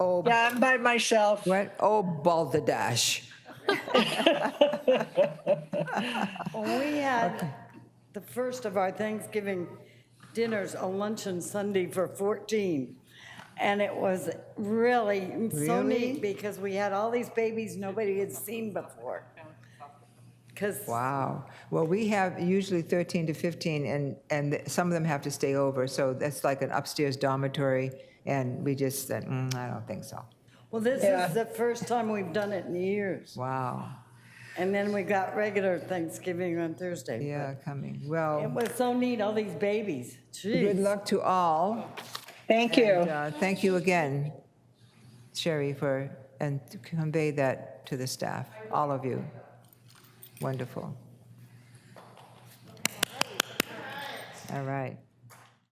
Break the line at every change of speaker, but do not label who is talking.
Oh,
Yeah, I'm by myself.
what? Oh, balderdash.
Well, we had the first of our Thanksgiving dinners, a luncheon Sunday for 14. And it was really so
Really?
neat because we had all these babies nobody had seen before. Because,
Wow. Well, we have usually 13 to 15, and, and some of them have to stay over, so that's like an upstairs dormitory, and we just said, mm, I don't think so.
well, this
Yeah.
is the first time we've done it in years.
Wow.
And then we got regular Thanksgiving on Thursday. but
Yeah, coming.
It
Well,
was so neat, all these babies.
good
Jeez.
luck to all.
Thank you.
And, uh, Thank you again, Sherry, for, and to convey that to the staff, all of you. Wonderful. All right.